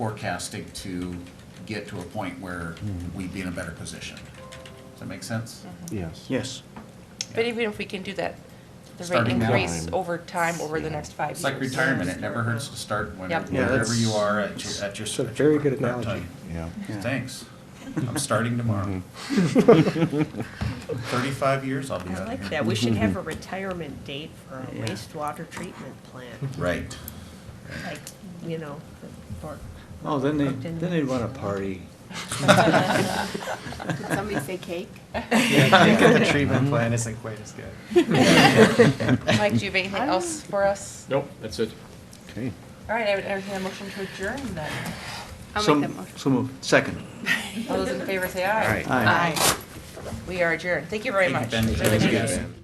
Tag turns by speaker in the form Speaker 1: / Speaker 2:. Speaker 1: forecasting to get to a point where
Speaker 2: Hmm.
Speaker 1: we'd be in a better position. Does that make sense?
Speaker 2: Yes.
Speaker 3: Yes.
Speaker 4: But even if we can do that, the rate
Speaker 1: Starting now.
Speaker 4: increase over time, over the next five years.
Speaker 1: It's like retirement, it never hurts to start whenever,
Speaker 4: Yep. Yeah,
Speaker 1: wherever
Speaker 3: that's-
Speaker 1: you are at your, at your.
Speaker 2: it's a
Speaker 1: at your
Speaker 2: very good
Speaker 1: prep
Speaker 2: analogy.
Speaker 1: time.
Speaker 2: Yeah.
Speaker 3: Yeah.
Speaker 1: Thanks, I'm starting tomorrow.
Speaker 2: Mm-hmm.
Speaker 1: Thirty-five years, I'll be out
Speaker 5: I
Speaker 1: of here.
Speaker 5: like that. We should have a retirement date for a wastewater treatment plant,
Speaker 2: Mm-hmm.
Speaker 1: Right,
Speaker 5: like, you know, for.
Speaker 3: Oh, then they, then they'd want a party.
Speaker 6: Did somebody say cake?
Speaker 7: The treatment
Speaker 2: Mm-hmm.
Speaker 7: plan isn't quite as good.
Speaker 4: Mike, do you have anything else for us?
Speaker 8: Nope, that's it.
Speaker 2: Okay.
Speaker 4: All right, I would entertain a motion to adjourn then.
Speaker 6: I'll
Speaker 3: So-
Speaker 6: make that motion.
Speaker 3: So moved. Second.
Speaker 4: All those in favor say aye.
Speaker 3: Aye.
Speaker 4: We are adjourned. Thank you very
Speaker 1: Thank you, Ben.
Speaker 4: much. Really
Speaker 1: Thank you,
Speaker 4: appreciate it.
Speaker 1: Ben.